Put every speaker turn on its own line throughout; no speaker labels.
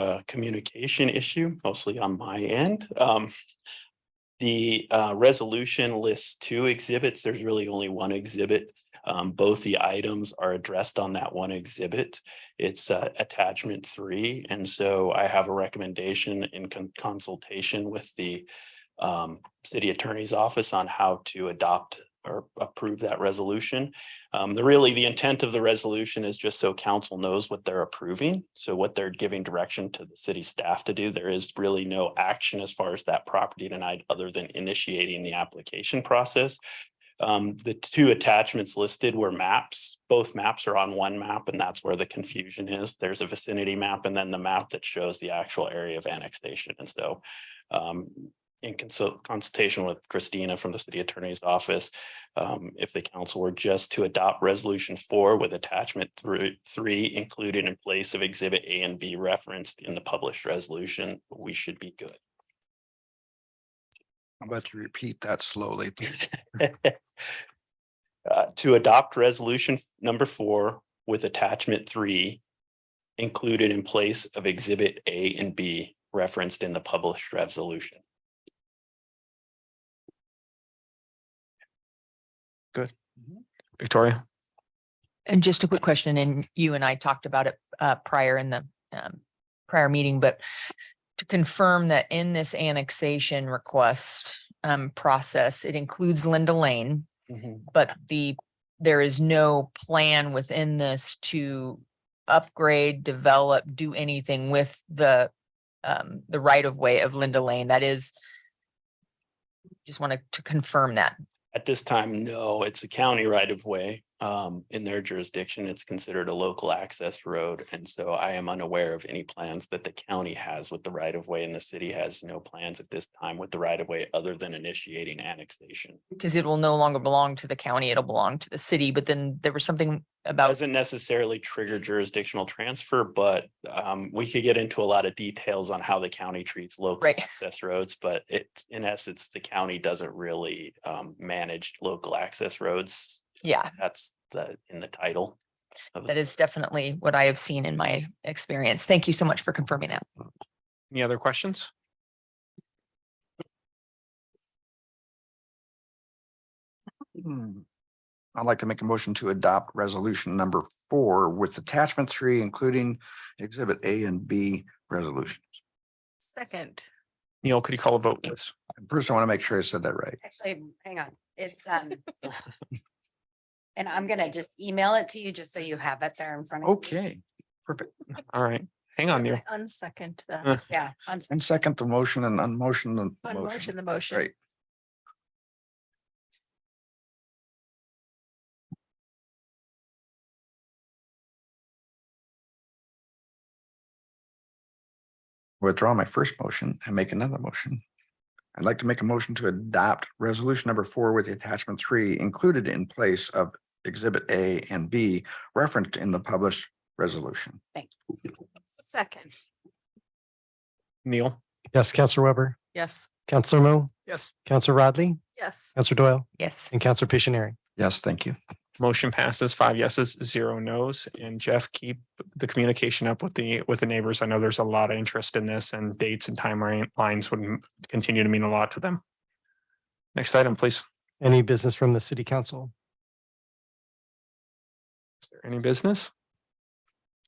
a communication issue, mostly on my end. Um, the uh, resolution lists two exhibits. There's really only one exhibit. Um, both the items are addressed on that one exhibit. It's uh, attachment three. And so I have a recommendation in con- consultation with the um, city attorney's office on how to adopt or approve that resolution. Um, the really, the intent of the resolution is just so council knows what they're approving. So what they're giving direction to the city staff to do. There is really no action as far as that property tonight, other than initiating the application process. Um, the two attachments listed were maps. Both maps are on one map and that's where the confusion is. There's a vicinity map and then the map that shows the actual area of annexation. And so um, in consult- consultation with Christina from the city attorney's office, um, if the council were just to adopt resolution four with attachment through three included in place of exhibit A and B referenced in the published resolution, we should be good.
I'm about to repeat that slowly.
Uh, to adopt resolution f- number four with attachment three included in place of exhibit A and B referenced in the published resolution.
Victoria?
And just a quick question, and you and I talked about it uh prior in the um prior meeting, but to confirm that in this annexation request um process, it includes Linda Lane, but the there is no plan within this to upgrade, develop, do anything with the um the right of way of Linda Lane. That is just wanted to confirm that.
At this time, no, it's a county right of way. Um, in their jurisdiction, it's considered a local access road. And so I am unaware of any plans that the county has with the right of way and the city has no plans at this time with the right of way other than initiating annexation.
Because it will no longer belong to the county, it'll belong to the city, but then there was something about,
Doesn't necessarily trigger jurisdictional transfer, but um, we could get into a lot of details on how the county treats local
right,
access roads, but it's in essence, the county doesn't really um, manage local access roads.
yeah,
That's the, in the title. of
that is definitely what I have seen in my experience. Thank you so much for confirming that.
Any other questions?
Hmm. I'd like to make a motion to adopt resolution number four with attachment three, including exhibit A and B resolutions.
Second,
Neil, could you call a vote, please?
First, I want to make sure I said that right.
Actually, hang on, it's, um. And I'm gonna just email it to you, just so you have it there in front of. you.
Okay, perfect.
All right, hang on, Neil.
I unsecond
Uh,
the,
Yeah, on s-
And second the motion and unmotion the
unmotion
motion.
the motion.
Right. Withdraw my first motion and make another motion. I'd like to make a motion to adopt resolution number four with the attachment three included in place of exhibit A and B referenced in the published resolution.
Second,
Neil,
Yes, Counselor Weber,
Yes.
Counselor Mo,
Yes.
Counselor Rodley,
yes,
Counselor Doyle,
Yes.
and Counselor Pictionary.
Yes, thank you.
motion passes five yeses, zero nos. And Jeff, keep the communication up with the, with the neighbors. I know there's a lot of interest in this and dates and timelines would m- continue to mean a lot to them. Next item, please.
Any business from the city council?
Is there any business?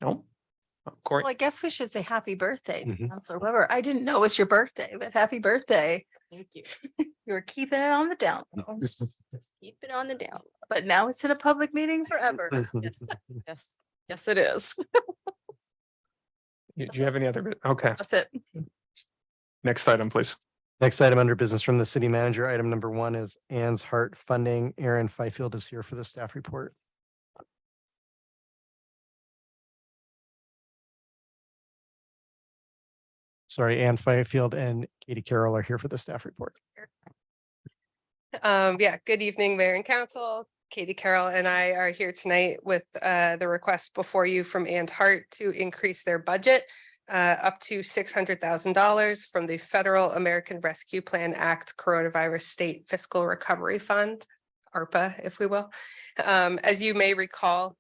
Oh, No. Corey,
well, I guess we should say happy birthday, to
Mhm.
Counselor Weber. I didn't know it was your birthday, but happy birthday.
thank you.
You were keeping it on the down, low,
Just Keep it on the down.
but now it's in a public meeting forever.
Yes, yes, yes, it is.
do you have any other? bit? Okay,
That's it.
next item, please.
Next item under business from the city manager, item number one is Ann's Heart Funding. Aaron Fifield is here for the staff report. Sorry, Ann Fifield and Katie Carroll are here for the staff report.
Um, yeah, good evening, Mayor and Council. Katie Carroll and I are here tonight with uh the request before you from Ann's Heart to increase their budget uh up to six hundred thousand dollars from the Federal American Rescue Plan Act Coronavirus State Fiscal Recovery Fund, ARPA, if we will. Um, as you may recall,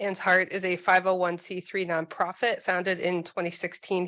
Ann's Heart is a five oh one C three nonprofit founded in twenty sixteen